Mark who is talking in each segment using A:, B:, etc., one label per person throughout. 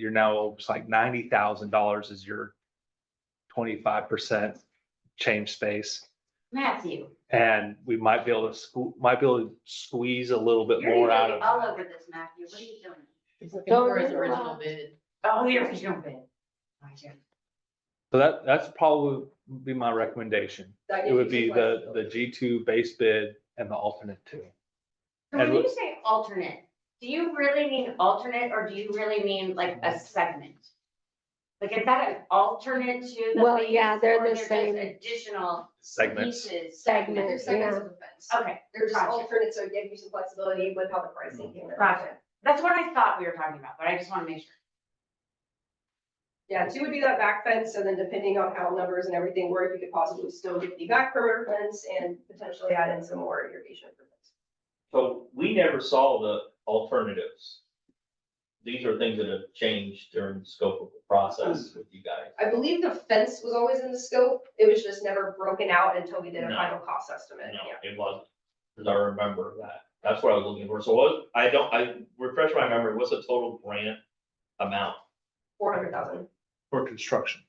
A: you're now, it's like ninety thousand dollars is your twenty-five percent change space.
B: Matthew.
A: And we might be able to squeeze, might be able to squeeze a little bit
B: You're
A: more out
B: usually
A: of,
B: All over this, Matthew. What are you doing?
C: He's looking for his
B: Don't-
C: original bid.
B: Oh, your original bid. My turn.
A: so that, that's probably would be my recommendation.
C: That
A: It would
C: gives you
A: be
C: some
A: the, the
C: flexibility.
A: G two base bid and the alternate two.
B: So
A: And
B: when
A: what-
B: you say alternate, do you really mean alternate or do you really mean like a segment? Like is that an alternate to the?
D: Well,
B: base,
D: yeah, they're
B: or
D: the
B: just
D: same
B: Additional
A: Segments.
B: pieces.
C: They're
D: segments,
C: segments
D: yeah.
C: of the fence.
B: Okay,
C: They're just
B: Gotcha.
C: alternate, so it gives you some flexibility with how the pricing came in.
B: Gotcha. that's what I thought we were talking about, but I just want to make sure.
C: Yeah, two would do that back fence, and then depending on how numbers and everything work, you could possibly still get the back perimeter fence and potentially add in some more irrigation. improvements.
E: So we never saw the alternatives. These are things that have changed during the scope of the process with you guys.
C: Mm. I believe the fence was always in the scope, it was just never broken out until we did a
E: No.
C: final cost estimate,
E: No,
C: yeah.
E: it wasn't, because I remember that. That's what I was looking for. So what, I don't, I refresh my memory, what's the total grant amount?
C: Four hundred thousand.
A: For construction.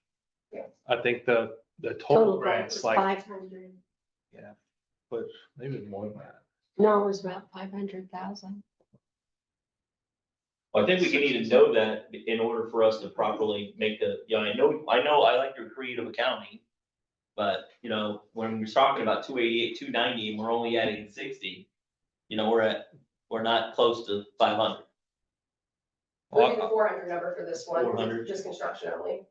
C: Yeah.
A: I think the, the total
D: Total grant
A: grants
D: was
A: like,
D: five hundred.
A: but maybe more than that.
D: No, it was about five hundred thousand.
E: Well, I think we can need to know that in order for us to properly make the, you know, I know, I know I like your creative accounting. But, you know, when we're talking about two eighty-eight, two ninety, and we're only adding sixty, you know, we're at, we're not close to five hundred.
C: We're
A: Well,
C: doing the four hundred number for this one,
E: 400.
C: just construction only,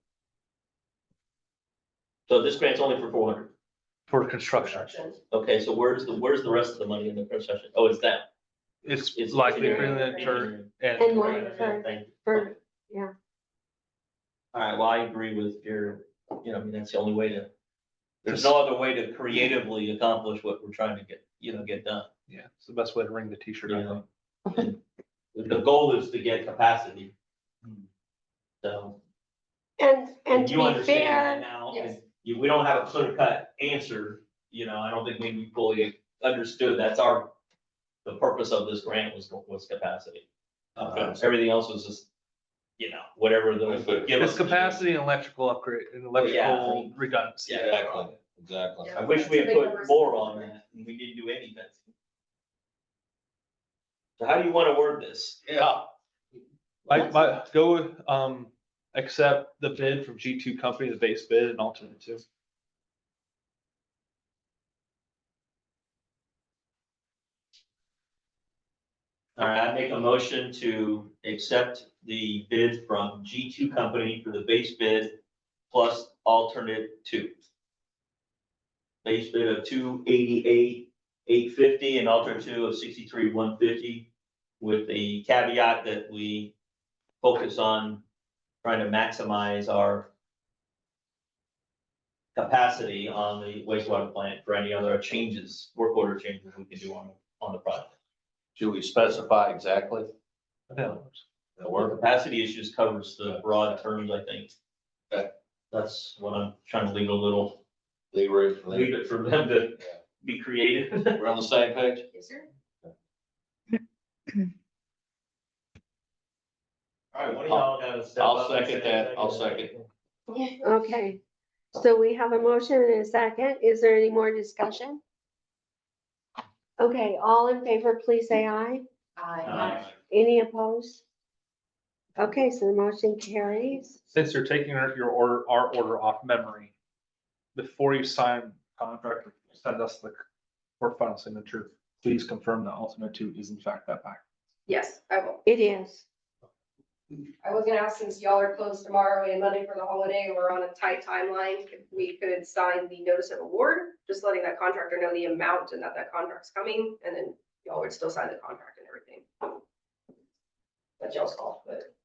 E: So this grant's only for four hundred.
A: For construction,
C: construction.
E: Okay, so where's the, where's the rest of the money in the concession? Oh, it's that.
A: it's
E: It's
A: likely
E: engineering.
A: for the turn
D: And
A: and
D: one- for-
E: Thank you.
D: For,
E: All right, well, I agree with your, you know, I mean, that's the only way to, there's no other way to creatively accomplish what we're trying to get, you know, get done.
A: yeah, it's the best way to ring the t-shirt. I
E: Yeah.
A: think.
E: The- The goal is to get capacity. So.
D: and, and
E: and you
D: to be
E: understand that
D: fair,
E: Now,
C: yes.
E: and you- we don't have a clear cut answer, you know, I don't think we fully understood, that's our, the purpose of this grant was, was capacity. Uh, Everything else was just, you know, whatever
F: I
E: the.
F: see.
E: give
A: It's
E: us-
A: capacity and electrical upgrade and electrical redundancy.
E: Yeah.
F: Exactly, exactly.
C: Yeah.
E: I wish we had
C: Big
E: put
C: numbers.
E: more on that, and we didn't do any fencing. So how do you wanna word this?
F: Yeah.
A: Like, my, go, with, um, accept the bid from G two company, the base bid and alternate two.
E: All right, I make a motion to accept the bid from G two company for the base bid plus alternate two. Base bid of two eighty-eight, eight fifty, and alternate two of sixty-three, one fifty, with the caveat that we focus on trying to maximize our capacity on the wastewater plant for any other changes, work order changes we can do on, on the project.
F: Should we specify exactly
A: I think that works.
F: the
E: Or
F: work?
E: capacity issues covers the broad terms, I think.
F: Okay.
E: That's what I'm trying to leave a little,
F: They were,
E: leave it for them to be creative.
F: we're on the same page?
C: Yes, sir.
E: All right, one of y'all gotta step
F: I'll
E: up and
F: second
E: say,
F: that, I'll
E: "Thank you."
D: okay. So we have a motion and a second. Is there any more discussion? Okay, all in favor, please say aye.
E: Uh,
D: Any opposed? Okay, so the motion carries.
A: Since you're taking our- your order, our order off memory, before you sign contract, send us the for final signature, please confirm that alternate two is in fact that back.
C: Yes, I will.
D: It is.
C: I was gonna ask, since y'all are closed tomorrow and Monday for the holiday, we're on a tight timeline, if we could sign the notice of award, just letting that contractor know the amount and that that contract's coming, and then y'all would still sign the contract and everything. That's y'all's call, but.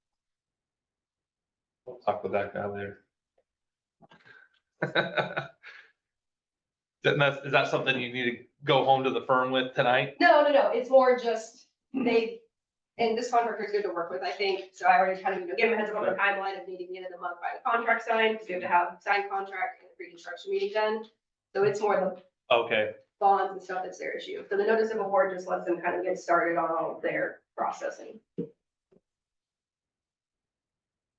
A: We'll Talk with that guy later. Then that's- is that something you need to go home to the firm with tonight?
C: No, no, no, it's more just they, and this contractor's good to work with, I think, so I already kind of, you know, give him a heads up on the timeline of needing the end of the month by the contract signed, because we have to have signed contract and pre-construction meeting done. So it's more the
A: Okay,
C: bonds and stuff that's their issue. So the notice of award just lets them kind of get started on all of their processing.